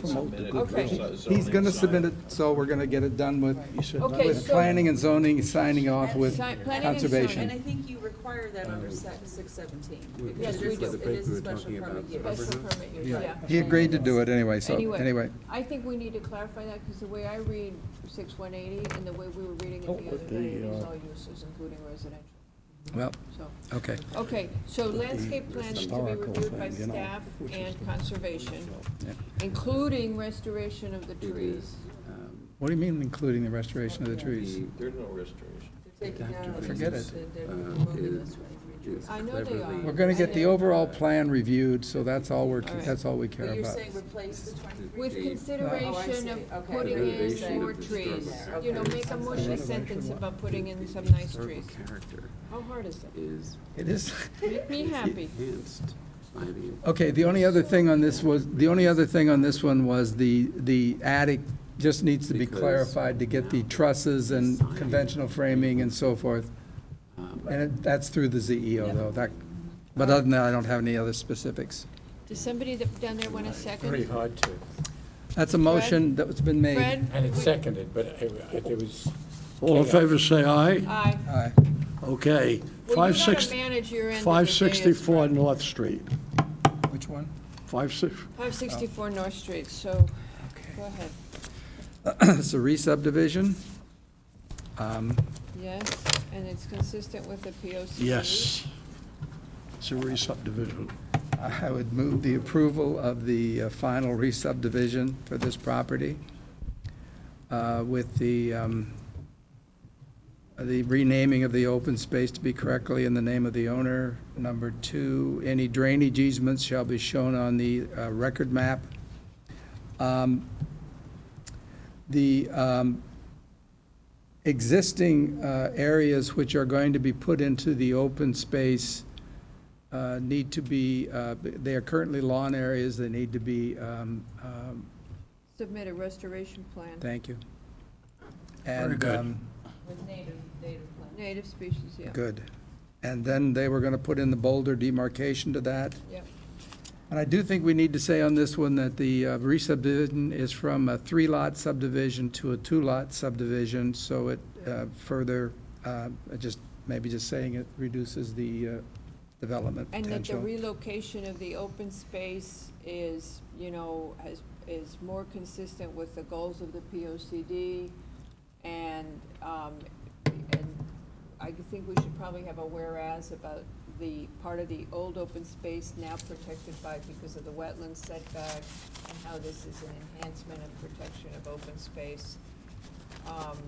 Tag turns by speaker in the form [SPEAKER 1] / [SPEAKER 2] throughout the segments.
[SPEAKER 1] promote the good
[SPEAKER 2] Okay.
[SPEAKER 1] will.
[SPEAKER 3] He's gonna submit it, so we're gonna get it done with,
[SPEAKER 2] Okay,
[SPEAKER 3] with
[SPEAKER 2] so-
[SPEAKER 3] planning and zoning, signing off with
[SPEAKER 2] Sign- planning and zoning,
[SPEAKER 4] And I
[SPEAKER 3] conservation.
[SPEAKER 4] think you require that under six seventeen.
[SPEAKER 2] Yes, we do.
[SPEAKER 4] It is a special permit use.
[SPEAKER 2] Special permit use, yeah.
[SPEAKER 3] He agreed to do it anyway, so, anyway.
[SPEAKER 2] I think we need to clarify that, because the way I read six one eighty and the way we were reading it
[SPEAKER 1] Oh,
[SPEAKER 2] the other
[SPEAKER 1] but
[SPEAKER 2] day, it
[SPEAKER 1] the,
[SPEAKER 2] is
[SPEAKER 1] uh,
[SPEAKER 2] all uses, including residential,
[SPEAKER 3] Well,
[SPEAKER 2] so.
[SPEAKER 3] okay.
[SPEAKER 2] Okay, so landscape plans to be
[SPEAKER 1] historical
[SPEAKER 2] reviewed by
[SPEAKER 1] thing, you know,
[SPEAKER 2] staff
[SPEAKER 1] which is
[SPEAKER 2] and
[SPEAKER 1] the-
[SPEAKER 2] conservation,
[SPEAKER 3] Yeah.
[SPEAKER 2] including restoration of the trees.
[SPEAKER 5] um,
[SPEAKER 3] What do you mean, including the restoration of the trees?
[SPEAKER 6] There's no restoration.
[SPEAKER 4] They're taking out Um, of
[SPEAKER 3] Forget
[SPEAKER 4] this-
[SPEAKER 3] it.
[SPEAKER 4] they're
[SPEAKER 5] Uh,
[SPEAKER 4] removing this
[SPEAKER 5] is-
[SPEAKER 4] one.
[SPEAKER 5] is
[SPEAKER 2] I know they are.
[SPEAKER 5] cleverly-
[SPEAKER 3] We're gonna get the overall plan reviewed, so that's all we're,
[SPEAKER 2] All right.
[SPEAKER 3] that's all we care
[SPEAKER 4] But you're
[SPEAKER 3] about.
[SPEAKER 4] saying replace the twenty-three?
[SPEAKER 2] With
[SPEAKER 5] They-
[SPEAKER 4] Oh, I
[SPEAKER 2] consideration
[SPEAKER 4] see.
[SPEAKER 2] of
[SPEAKER 4] Okay.
[SPEAKER 2] putting in
[SPEAKER 5] Preservation
[SPEAKER 2] more
[SPEAKER 5] of the
[SPEAKER 2] trees,
[SPEAKER 4] historic
[SPEAKER 2] you know,
[SPEAKER 5] character.
[SPEAKER 2] make a mushy
[SPEAKER 1] Preservation
[SPEAKER 2] sentence
[SPEAKER 1] of
[SPEAKER 2] about putting in
[SPEAKER 5] The
[SPEAKER 2] some nice
[SPEAKER 5] historical
[SPEAKER 2] trees.
[SPEAKER 5] Character
[SPEAKER 2] How hard is it?
[SPEAKER 5] is.
[SPEAKER 3] It is, Oh.
[SPEAKER 2] Make me
[SPEAKER 5] is
[SPEAKER 2] happy.
[SPEAKER 5] Enhanced by the.
[SPEAKER 3] okay, the only other thing on this was, the only other thing on this one was the, the attic just needs to be
[SPEAKER 5] Because-
[SPEAKER 3] clarified to get the trusses and conventional framing and so forth.
[SPEAKER 5] um,
[SPEAKER 3] And it- that's through the ZEO, though, that, but other than that, I don't have any other specifics.
[SPEAKER 2] Does somebody that- down there want a
[SPEAKER 7] Pretty
[SPEAKER 2] second?
[SPEAKER 7] hard to,
[SPEAKER 3] That's a motion that's been made.
[SPEAKER 2] Fred?
[SPEAKER 7] and it's seconded, but it it was,
[SPEAKER 8] All in favor, say aye.
[SPEAKER 2] Aye.
[SPEAKER 3] Aye.
[SPEAKER 8] Okay.
[SPEAKER 2] Well, you gotta
[SPEAKER 8] 560
[SPEAKER 2] manage your end of the day as
[SPEAKER 8] 564
[SPEAKER 2] well.
[SPEAKER 8] North Street.
[SPEAKER 3] Which one?
[SPEAKER 8] 56,
[SPEAKER 2] 564 North Street, so go ahead.
[SPEAKER 3] It's a re-subdivision. Um,
[SPEAKER 2] Yes, and it's consistent with the POC.
[SPEAKER 8] yes. It's a re-subdivision.
[SPEAKER 3] I would move the approval of the uh, final re-subdivision for this property uh, with the, um, the renaming of the open space to be correctly in the name of the owner. Number two, any drainage easements shall be shown on the uh, record map. Um, The um, existing uh, areas which are going to be put into the open space uh, need to be, uh, they are currently lawn areas, they need to be, um, um,
[SPEAKER 2] Submit a restoration plan,
[SPEAKER 3] thank you.
[SPEAKER 8] Very
[SPEAKER 3] And,
[SPEAKER 8] good.
[SPEAKER 3] um,
[SPEAKER 4] With native, native plants.
[SPEAKER 2] native species, yeah.
[SPEAKER 3] Good. And then they were going to put in the boulder demarcation to that.
[SPEAKER 2] Yep.
[SPEAKER 3] And I do think we need to say on this one that the uh, re-subdivision is from a three-lot subdivision to a two-lot subdivision, so it uh, further, uh, just, maybe just saying it reduces the uh, development
[SPEAKER 2] And
[SPEAKER 3] potential.
[SPEAKER 2] that the relocation of the open space is, you know, has, is more consistent with the goals of the POCD. And, um, and I think we should probably have a whereas about the part of the old open space now protected by, because of the wetland setback, and how this is an enhancement and protection of open space. Um,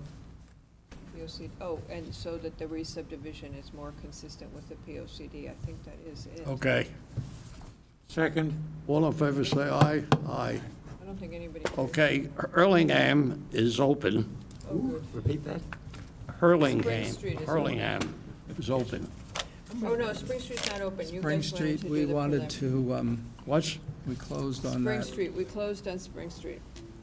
[SPEAKER 2] POC, oh, and so that the re-subdivision is more consistent with the POCD, I think that is it.
[SPEAKER 8] Okay.
[SPEAKER 7] second,
[SPEAKER 8] All in favor, say aye. Aye.
[SPEAKER 2] I don't think anybody.
[SPEAKER 8] Okay, Hurlingham is open.
[SPEAKER 2] Oh, good.
[SPEAKER 7] repeat that?
[SPEAKER 8] Hurlingham,
[SPEAKER 2] Street is open.
[SPEAKER 8] Hurlingham is open.
[SPEAKER 2] Oh, no, Spring Street's not open. You
[SPEAKER 3] Spring
[SPEAKER 2] guys wanted
[SPEAKER 3] Street,
[SPEAKER 2] to
[SPEAKER 3] we
[SPEAKER 2] do the
[SPEAKER 3] wanted
[SPEAKER 2] prelim.
[SPEAKER 3] to, um,
[SPEAKER 8] What's,
[SPEAKER 3] we closed on
[SPEAKER 2] Spring
[SPEAKER 3] that.
[SPEAKER 2] Street, we closed on Spring Street.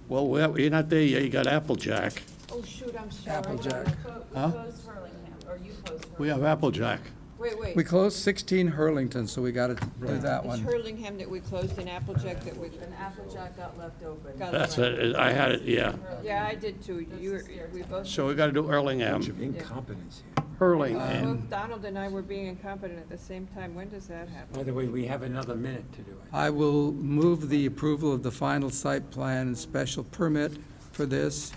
[SPEAKER 8] well, we- you're not there yet, you got Applejack.
[SPEAKER 2] Oh, shoot, I'm sorry.
[SPEAKER 3] Applejack.
[SPEAKER 8] Huh?
[SPEAKER 4] We closed Hurlingham, or you closed Hurlingham.
[SPEAKER 8] We have Applejack.
[SPEAKER 2] Wait, wait.
[SPEAKER 3] We closed 16 Hurlington, so we got to do that
[SPEAKER 2] It's
[SPEAKER 3] one.
[SPEAKER 2] Hurlingham that we closed and Applejack that we,
[SPEAKER 4] And Applejack got left open.
[SPEAKER 2] Got
[SPEAKER 8] That's it, I had it, yeah.
[SPEAKER 2] yeah, I did too. You, were- we both,
[SPEAKER 8] So we got to do
[SPEAKER 7] Bunch
[SPEAKER 8] Hurlingham.
[SPEAKER 7] of incompetence here.
[SPEAKER 8] Hurlingham.
[SPEAKER 2] uh, both Donald and I were being incompetent at the same time. When does that happen?
[SPEAKER 7] By the way, we have another minute to do it.
[SPEAKER 3] I will move the approval of the final site plan and special permit for this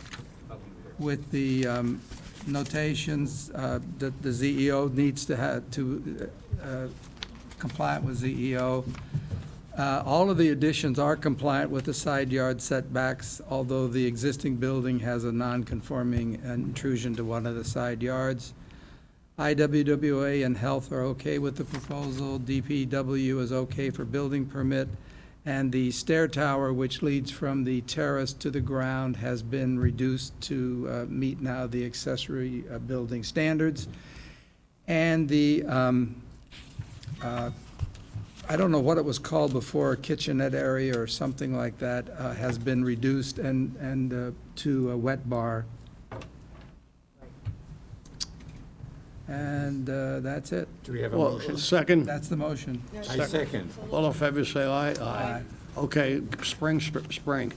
[SPEAKER 3] with the um, notations uh, that the ZEO needs to have, to uh, comply with ZEO. Uh, All of the additions are compliant with the side yard setbacks, although the existing building has a non-conforming intrusion to one of the side yards. IWWA and Health are okay with the proposal, DPW is okay for building permit, and the stair tower, which leads from the terrace to the ground, has been reduced to uh, meet now the accessory uh, building standards. And the, um, uh, I don't know what it was called before, kitchenette area or something like that, uh, has been reduced and, and uh, to a wet bar. And uh, that's it.
[SPEAKER 7] Do we have a
[SPEAKER 8] Well,
[SPEAKER 7] motion?
[SPEAKER 8] second,
[SPEAKER 3] That's the motion.
[SPEAKER 7] I second.
[SPEAKER 8] all in favor, say aye. Aye. okay, spring, sp- spring.